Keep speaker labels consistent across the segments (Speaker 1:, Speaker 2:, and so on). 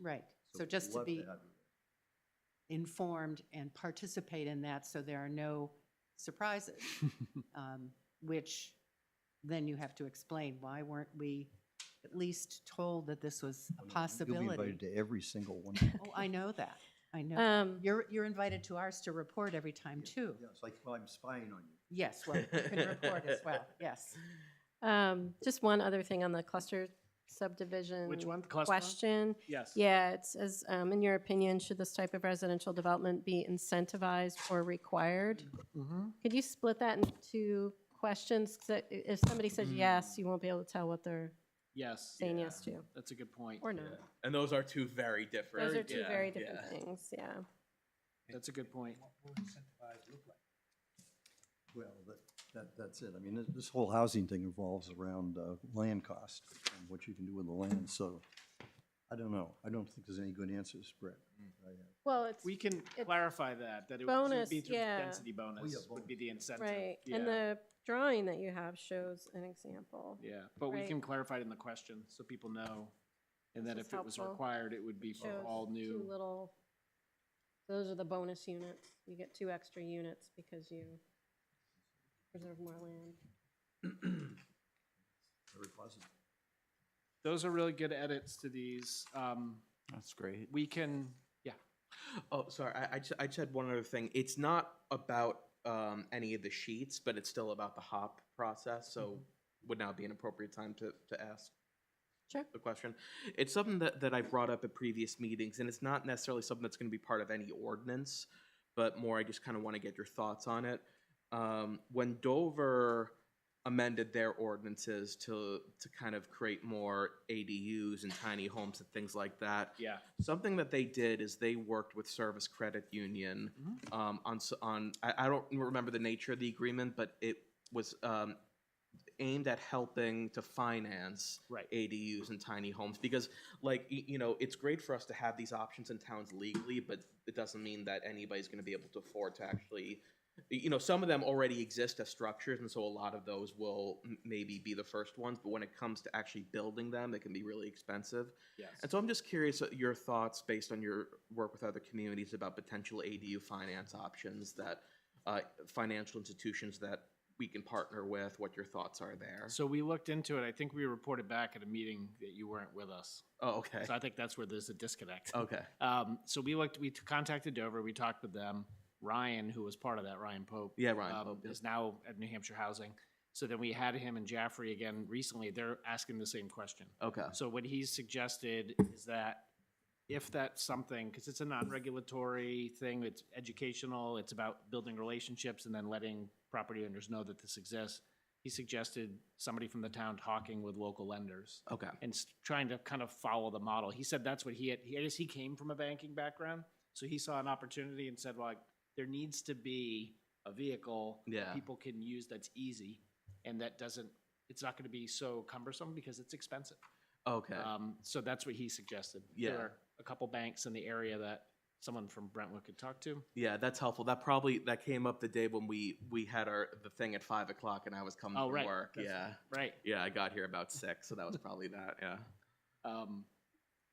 Speaker 1: Right, so just to
Speaker 2: love
Speaker 1: be
Speaker 2: have you.
Speaker 1: informed and participate in that so there are no surprises, um, which then you have to explain, why weren't we at least told that this was a
Speaker 2: You'll be
Speaker 1: possibility?
Speaker 2: invited to every single one.
Speaker 1: Oh, I know that, I know.
Speaker 3: Um,
Speaker 1: You're, you're invited to ours to report every time, too.
Speaker 2: Yeah, it's like, well, I'm spying on you.
Speaker 1: Yes, well, you can report as well, yes.
Speaker 3: um, just one other thing on the cluster subdivision.
Speaker 4: Which one? Cluster?
Speaker 3: Question.
Speaker 4: Yes.
Speaker 3: Yeah, it says, um, in your opinion, should this type of residential development be incentivized or required? Could you split that into two questions? 'Cause i- if somebody says
Speaker 4: Mm-hmm.
Speaker 3: yes, you won't be able to tell what they're
Speaker 4: Yes.
Speaker 3: saying
Speaker 5: Yeah.
Speaker 3: yes to,
Speaker 4: That's a good point.
Speaker 3: or no.
Speaker 5: Yeah. And those are two very different.
Speaker 3: Those are two
Speaker 5: yeah,
Speaker 3: very different
Speaker 5: yeah.
Speaker 3: things, yeah.
Speaker 4: That's a good point.
Speaker 2: Well, that, that, that's it. I mean, this, this whole housing thing revolves around, uh, land cost and what you can do with the land, so I don't know. I don't think there's any good answers, Brett.
Speaker 1: Mm.
Speaker 2: I uh, have.
Speaker 3: Well, it's,
Speaker 4: We can clarify that, that it
Speaker 3: Bonus,
Speaker 4: would be through
Speaker 3: yeah.
Speaker 4: density bonus
Speaker 2: yeah,
Speaker 4: would be the incentive.
Speaker 3: right,
Speaker 4: Yeah.
Speaker 3: and the drawing that you have shows an example.
Speaker 4: Yeah, but we
Speaker 3: right.
Speaker 4: can clarify it in the question so people know. And
Speaker 3: This
Speaker 4: that
Speaker 3: is
Speaker 4: if it was
Speaker 3: helpful.
Speaker 4: required, it would be for
Speaker 3: shows
Speaker 4: all
Speaker 3: Two
Speaker 4: new.
Speaker 3: little, those are the bonus units. You get two extra units because you preserve more land.
Speaker 2: Very positive.
Speaker 4: Those are really good edits to these. Um,
Speaker 6: That's great.
Speaker 4: we can, yeah,
Speaker 5: Oh, sorry. I, I, just, I just had one other thing. It's not about um, any of the sheets, but it's still about the hop process. So would now be an appropriate time to, to ask
Speaker 3: Sure.
Speaker 5: the question. It's something that, that I've brought up at previous meetings, and it's not necessarily something that's going to be part of any ordinance, but more I just kind of want to get your thoughts on it. Um, when Dover amended their ordinances to to kind of create more ADUs and tiny homes and things like that,
Speaker 4: yeah.
Speaker 5: something that they did is they worked with Service Credit Union um, on s- on I, I don't remember the nature of the agreement, but it was um, aimed at helping to finance
Speaker 4: Right.
Speaker 5: ADUs and tiny homes because, like y- you know, it's great for us to have these options in towns legally, but it doesn't mean that anybody's going to be able to afford to actually. y- You know, some of them already exist as structures, and so a lot of those will m- maybe be the first ones. But when it comes to actually building them, it can be really expensive.
Speaker 4: Yes.
Speaker 5: And so I'm just curious uh, your thoughts based on your work with other communities about potential ADU finance options that uh, financial institutions that we can partner with, what your thoughts are there.
Speaker 4: So we looked into it. I think we reported back at a meeting that you weren't with us.
Speaker 5: oh, okay.
Speaker 4: So I think that's where there's a disconnect.
Speaker 5: Okay.
Speaker 4: Um, so we looked, we contacted Dover, we talked with them. Ryan, who was part of that, Ryan Pope,
Speaker 5: Yeah, Ryan.
Speaker 4: um,
Speaker 5: Pope, yeah.
Speaker 4: is now at New Hampshire Housing. So then we had him and Jaffrey again recently. They're asking the same question.
Speaker 5: Okay.
Speaker 4: So what he's suggested is that if that's something, because it's a non-regulatory thing, it's educational, it's about building relationships and then letting property owners know that this exists. He suggested somebody from the town talking with local lenders
Speaker 5: Okay.
Speaker 4: and s- trying to kind of follow the model. He said that's what he had. He, I guess he came from a banking background, so he saw an opportunity and said, "Well, like, there needs to be a vehicle
Speaker 5: Yeah.
Speaker 4: people can use that's easy, and that doesn't. It's not going to be so cumbersome because it's expensive."
Speaker 5: Okay.
Speaker 4: Um, so that's what he suggested.
Speaker 5: Yeah.
Speaker 4: There are a couple banks in the area that someone from Brentwood could talk to.
Speaker 5: yeah, that's helpful. That probably that came up the day when we we had our the thing at five o'clock and I was coming
Speaker 4: Oh,
Speaker 5: from
Speaker 4: right.
Speaker 5: work.
Speaker 4: That's-
Speaker 5: yeah.
Speaker 4: Right.
Speaker 5: Yeah, I got here about six, so that was probably that. Yeah.
Speaker 4: Um,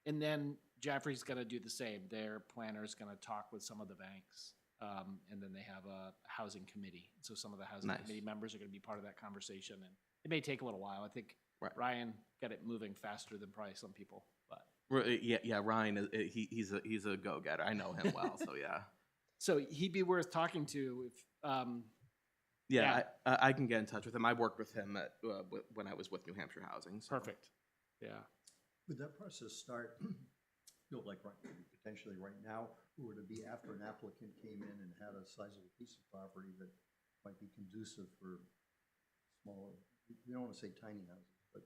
Speaker 4: and then Jaffrey's gonna do the same. Their planner's gonna talk with some of the banks. Um, and then they have a housing committee. So some of the housing
Speaker 5: Nice.
Speaker 4: committee members are gonna be part of that conversation. And it may take a little while. I think
Speaker 5: Right.
Speaker 4: Ryan got it moving faster than probably some people, but.
Speaker 5: R- uh, Yeah, yeah. Ryan, is- he, he's a he's a go getter. I know him well, so yeah.
Speaker 4: So he'd be worth talking to if, um,
Speaker 5: Yeah,
Speaker 4: Yeah.
Speaker 5: I, I- I can get in touch with him. I worked with him at, uh, w- when I was with New Hampshire Housing. so-
Speaker 4: perfect. Yeah.
Speaker 2: Would that process start, feel like right, potentially right now, or would it be after an applicant came in and had a sizable piece of property that might be conducive for smaller, you don't want to say tiny houses, but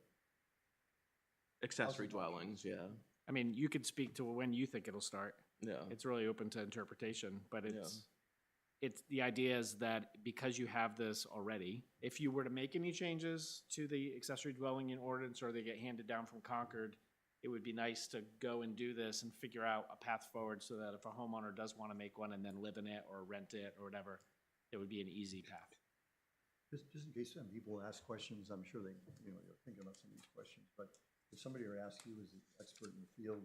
Speaker 5: Accessory
Speaker 2: Housing.
Speaker 5: dwellings, yeah,
Speaker 4: I mean, you could speak to when you think it'll start.
Speaker 5: yeah,
Speaker 4: it's really open to interpretation, but
Speaker 5: Yeah.
Speaker 4: it's, it's, the idea is that because you have this already, if you were to make any changes to the accessory dwelling in ordinance or they get handed down from Concord, it would be nice to go and do this and figure out a path forward so that if a homeowner does want to make one and then live in it or rent it or whatever, it would be an easy path.
Speaker 2: Just, just in case some people ask questions, I'm sure they, you know, they're thinking about some of these questions, but if somebody were to ask you as an expert in the field,